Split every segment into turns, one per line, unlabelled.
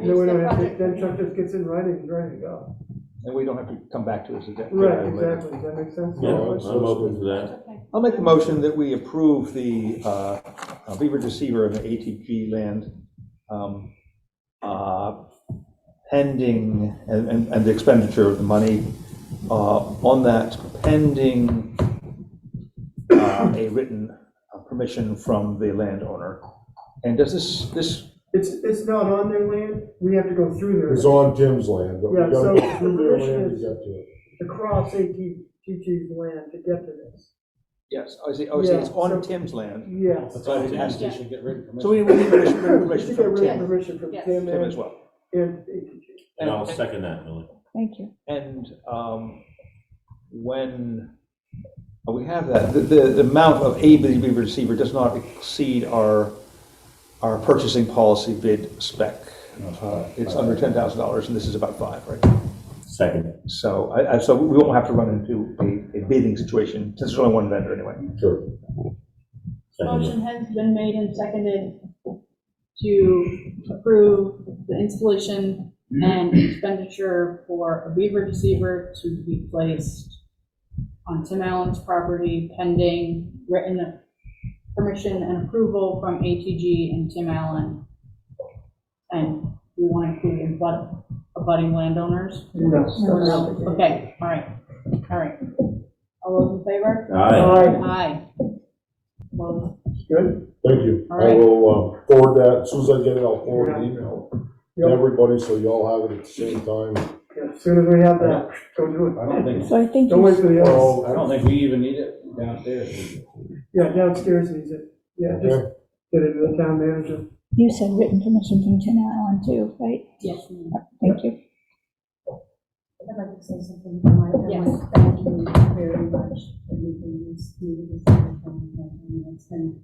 Then
introduce
we
the
don't have, to-
project.
then Chuck just gets in writing, and ready to go.
And we don't have to come back to this again.
Right, exactly, does that make sense?
Yeah, I'm open to that.
Okay.
I'll make the motion that we approve the uh, uh, Beaver Deceiver and the ATG land um, uh, pending, and, and and the expenditure of the money uh, on that pending uh, a written uh, permission from the landowner. And does this, this,
It's, it's not on their land, we have to go through
It was
their,
on Jim's land, but we
Yeah,
gotta
so
go through their
the
land
issue
to
is-
get to it.
across ATTG's land to get to this.
yes, I see, oh, I see, it's
Yeah,
on
so-
Tim's land,
Yes.
That's all it has to, should get rid of permission.
so we we need permission
We
permission
should get
from
written
Tim,
permission from
Yes.
Tim
Tim as
and,
well.
and ATG.
And I'll second that, Millie.
Thank you.
And um, when uh, we have that, the, the the amount of ABV we receiver does not exceed our, our purchasing policy bid spec. Uh, It's under ten thousand dollars, and this is about five, right?
Second.
So I, I, so we won't have to run into a, a bidding situation, since there's only one vendor anyway.
Sure. Second.
Motion has been made and seconded to approve the installation and expenditure for a beaver deceiver to be placed on Tim Allen's property pending written permission and approval from ATG and Tim Allen. And we want to include abut- abutting landowners? No. Okay, all right, all right. All those in favor?
Aye.
Aye. Well,
Good?
Thank you.
All
I
right.
will uh, forward that, as soon as I get it, I'll forward an email to
Yep.
everybody, so you all have it at the same time.
Yeah, As soon as we have that, go do it.
I don't think,
So I think,
Don't
you-
wait for the others.
Well,
I don't think we even need it downstairs.
Yeah, downstairs needs it. Yeah, just
okay.
get it to the town manager.
you said written permission from Tim Allen too, right?
Yes.
Thank you.
I'd like to say something from my family.
Yes.
Thank you very much for making this meeting this wonderful event. I mean, It's been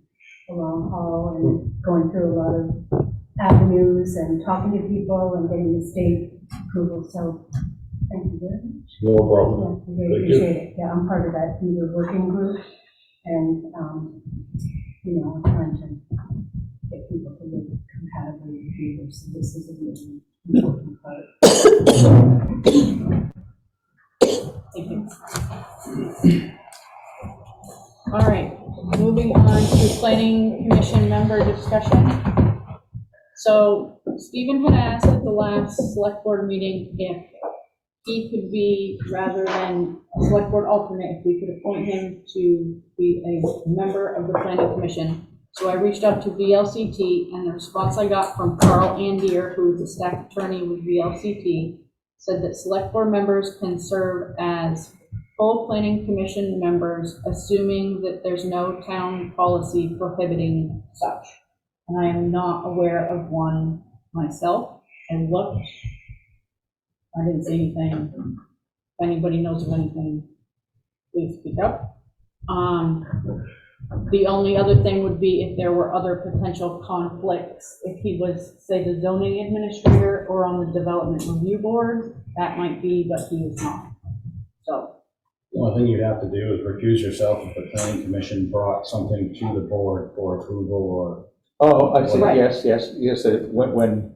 a long haul and going through a lot of avenues and talking to people and getting the state approval, so thank you very much.
No problem.
Yeah, we really
Thank you.
appreciate it. Yeah, I'm part of that media working group and, um, you know, I'm trying to get people to live compatibly with people, so this is a really important part.
All right, moving on to planning commission member discussion. So Stephen had asked at the last select board meeting if he could be, rather than a select board alternate, if we could appoint him to be a member of the planning commission. So I reached out to VLCT and the response I got from Carl Andier, who is the staff attorney with VLCT, said that select board members can serve as full planning commission members, assuming that there's no town policy prohibiting such. And I am not aware of one myself, and looked. I didn't see anything. If anybody knows of anything, please speak up. Um, the only other thing would be if there were other potential conflicts, if he was, say, the zoning administrator or on the development review board, that might be, but he is not. So,
The only thing you'd have to do is recuse yourself if the planning commission brought something to the board for approval or.
Oh, I see,
Right.
yes, yes, yes, uh, when, when,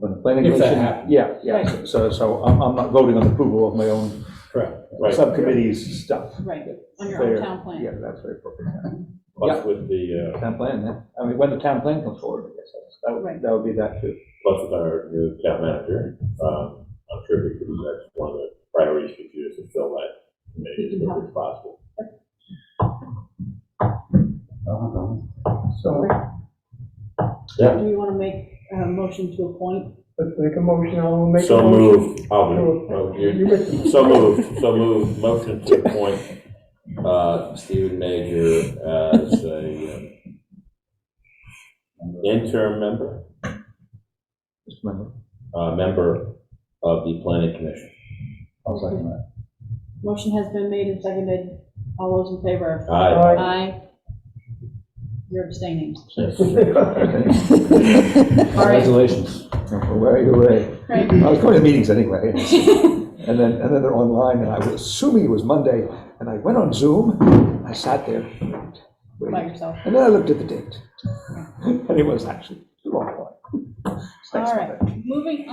when planning
If that
commission.
happens.
Yeah, yeah,
Right.
so, so I'm, I'm not voting on approval of my own
Correct.
subcommittee's stuff.
Right, on your
Fair.
own town plan.
Yeah, that's very appropriate.
Plus with the, uh,
Town plan, yeah. I mean, when the town plan comes forward, I guess, that's- that
Right.
would, that would be that too.
plus with our new town manager, um, I'm sure we could, that's one of the priorities we could do is to fill that committee as quickly as possible.
So
Do you want to make a motion to appoint?
let's make a motion, I'll make a
So
motion.
moved, I'll do, oh,
You
you
make the
so moved, so moved, motion to appoint, uh, Stephen Major as a um, interim member,
Just remember.
uh, member of the planning commission.
I'll second that.
Motion has been made and seconded. All those in favor?
Aye.
Aye.
Aye. You're abstaining. All right,
Congratulations.
Hooray, hooray.
Craig.
I was going to meetings anyway, and then, and then they're online, and I was assuming it was Monday, and I went on Zoom, I sat there,
By
waited,
yourself.
and then I looked at the date. And it was actually the wrong one. Thanks,
All right, moving